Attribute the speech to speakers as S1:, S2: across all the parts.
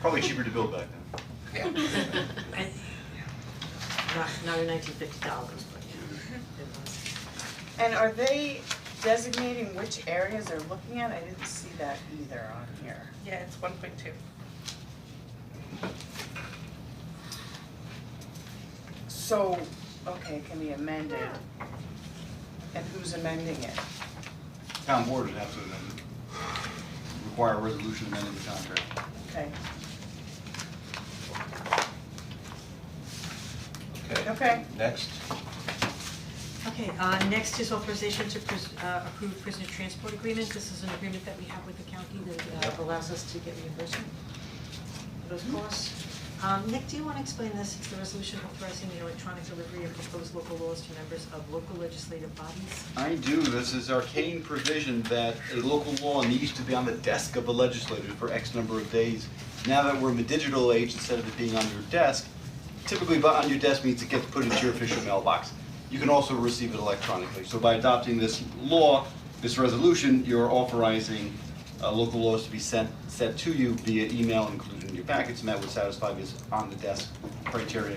S1: Probably cheaper to build back then.
S2: And- Not, not in nineteen fifty dollars, but yeah, it was.
S3: And are they designating which areas they're looking at? I didn't see that either on here.
S4: Yeah, it's one point two.
S3: So, okay, it can be amended. And who's amending it?
S1: Town board would have to amend it. Require a resolution amending the contract.
S3: Okay,
S5: Okay.
S3: Okay.
S5: Next,
S2: Okay, uh, next is authorization to pres- uh, approve prisoner transport agreement. This is an agreement that we have with the county that uh, allows us to get reimbursement for those costs. Um, Nick, do you wanna explain this? It's the resolution authorizing the electronic delivery of proposed local laws to members of local legislative bodies.
S1: I do, this is arcane provision that a local law needs to be on the desk of the legislator for X number of days. Now that we're in the digital age, instead of it being on your desk, typically but on your desk means it gets put into your official mailbox. You can also receive it electronically, so by adopting this law, this resolution, you're authorizing uh local laws to be sent sent to you via email included in your packets, and that would satisfy this on the desk criteria.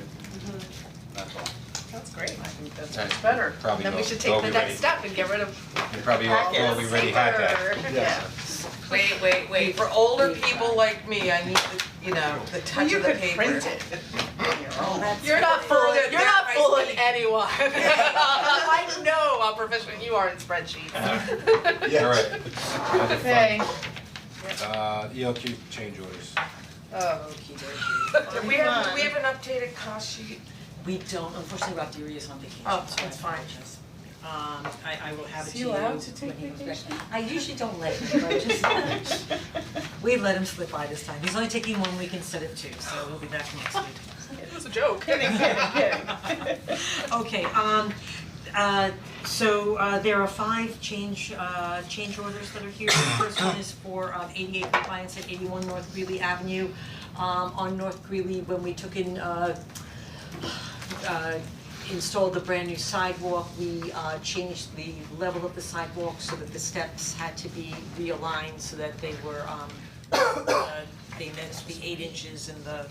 S1: That's all.
S4: That's great.
S3: I think that's
S5: Alright.
S3: much better.
S5: probably
S4: Then
S5: go,
S4: we should take
S5: go
S4: the
S5: be
S4: next
S5: ready.
S4: step and get rid of
S5: You probably all go be
S4: packets,
S5: ready, had that.
S4: paper.
S1: Yes.
S6: Wait, wait, wait, for older people like me, I need the, you know, the
S3: Well,
S6: touch
S3: you
S6: of the
S3: could
S6: paper.
S3: print it on your own.
S6: You're not fooling, you're not fooling anyone.
S4: I know how proficient you are in spreadsheets.
S1: Yes.
S5: All right.
S3: Okay,
S5: Uh, ELQ change orders.
S4: Oh,
S6: Do we have, do we have an updated cost sheet?
S2: We don't, unfortunately, Rob Dury is on vacation,
S4: Oh,
S2: so I
S4: that's fine.
S2: apologize. Um, I, I will have it
S3: Is
S2: to
S3: he
S2: you when he
S3: allowed
S2: goes
S3: to
S2: back.
S3: take vacation?
S2: I usually don't let him, but just, we let him slip by this time. He's only taking one week instead of two, so we'll be back next week.
S4: It was a joke.
S3: kidding, kidding, kidding.
S2: Okay, um, uh, so, uh, there are five change, uh, change orders that are here. The first one is for, um, ADA compliance at eighty-one North Greeley Avenue. Um, on North Greeley, when we took in, uh, uh, installed the brand new sidewalk, we, uh, changed the level of the sidewalk so that the steps had to be realigned so that they were, um, uh, they met the eight inches and the,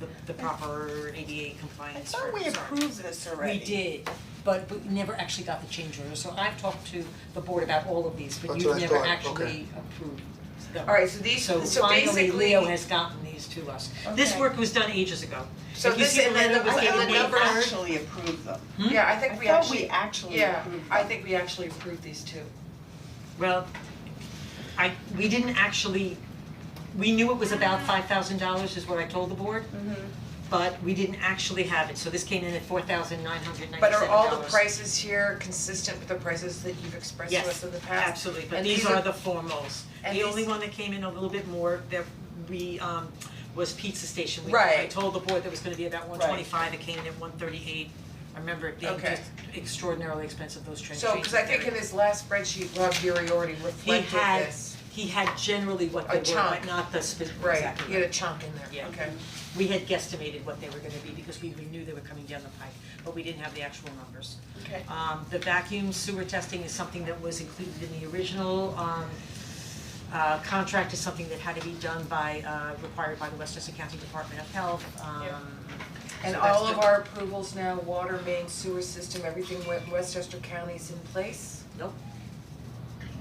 S2: the, the proper
S3: I
S2: ADA compliance for,
S3: thought we
S2: sorry.
S3: approved this already.
S2: We did, but we never actually got the change order, so I've talked to the board about all of these, but
S7: That's
S2: you've
S7: what I
S2: never
S7: thought,
S2: actually
S7: okay.
S2: approved them.
S6: Alright, so these, so
S2: finally,
S6: basically,
S2: Leo has gotten these to us. This
S3: Okay.
S2: work was done ages ago.
S6: So
S2: If you
S6: this
S2: see the
S6: is- and
S2: letter
S6: the-
S2: was
S6: and
S2: dated
S6: the
S2: May
S6: number-
S2: first.
S3: Actually approved them.
S2: Hmm?
S6: yeah, I
S3: I
S6: think we
S3: thought we
S6: actually,
S3: actually
S6: yeah,
S3: approved
S6: I
S3: them.
S6: think we actually approved these two.
S2: Well, I, we didn't actually, we knew it was about five thousand dollars is what I told the board.
S6: Mm-hmm.
S2: But we didn't actually have it, so this came in at four thousand nine hundred ninety-seven
S6: But
S2: dollars.
S6: are all the prices here consistent with the prices that you've expressed to us in the past?
S2: Yes, absolutely, but
S6: And
S2: these are the formals.
S6: and
S2: The only
S6: these-
S2: one that came in a little bit more that we, um, was Pizza Station. We- I
S6: Right.
S2: told the board that was gonna be about one twenty-five, it came in at one thirty-eight. I remember it being
S6: Okay.
S2: just extraordinarily expensive, those train
S6: So, cause I think in his last spreadsheet, Rob Fury already
S2: He
S6: reflected
S2: had,
S6: this.
S2: he had generally what
S6: A
S2: they were, but
S6: chunk.
S2: not the specific,
S6: Right,
S2: exactly
S6: he had a chunk in there,
S2: Yeah.
S6: okay.
S2: we had guesstimated what they were gonna be because we we knew they were coming down the pike, but we didn't have the actual numbers.
S3: Okay.
S2: Um the vacuum sewer testing is something that was included in the original um uh contract is something that had to be done by uh required by the Westchester County Department of Health, um
S4: Yeah.
S6: And
S2: so that's
S6: all of
S2: good.
S6: our approvals now, water main, sewer system, everything went Westchester County's in place?
S2: Nope.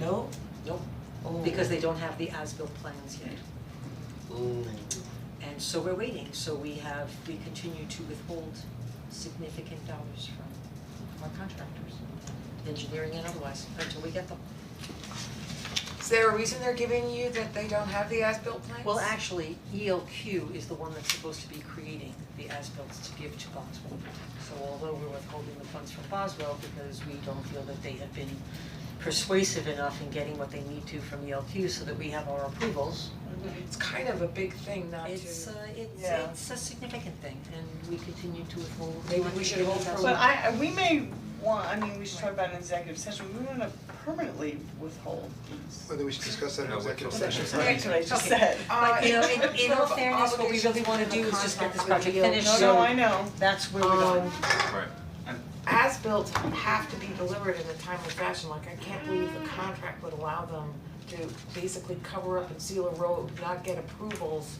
S2: No, nope, because they don't have the as-built plans yet. And so we're waiting, so we have, we continue to withhold significant dollars from our contractors, engineering and otherwise, until we get them.
S6: Is there a reason they're giving you that they don't have the as-built plans?
S2: Well, actually, ELQ is the one that's supposed to be creating the as-built to give to Boswell. So although we're withholding the funds from Boswell because we don't feel that they have been persuasive enough in getting what they need to from ELQ so that we have our approvals,
S6: It's kind of a big thing not to.
S2: It's uh it's
S3: Yeah.
S2: it's a significant thing and we continue to withhold.
S6: Maybe we should hold for-
S3: But I, I- we may want, I mean, we should talk about an executive session, we wanna permanently withhold these.
S7: Whether we should discuss that in
S5: No, we're
S7: executive
S5: talking.
S7: session.
S3: That's what I just
S2: Okay.
S3: said.
S6: Uh,
S2: But you know, in
S6: terms
S2: in all
S6: of
S2: fairness, what we really
S6: obligations
S2: wanna
S6: in the
S2: do is just get this
S6: contract
S2: project
S6: with
S2: finished,
S3: No,
S2: So-
S6: ELQ.
S3: no, I know.
S2: That's where we're
S6: Um,
S2: going.
S5: Right.
S6: As-built have to be delivered in a timely fashion, like I can't believe the contract would allow them to basically cover up and seal a road, not get approvals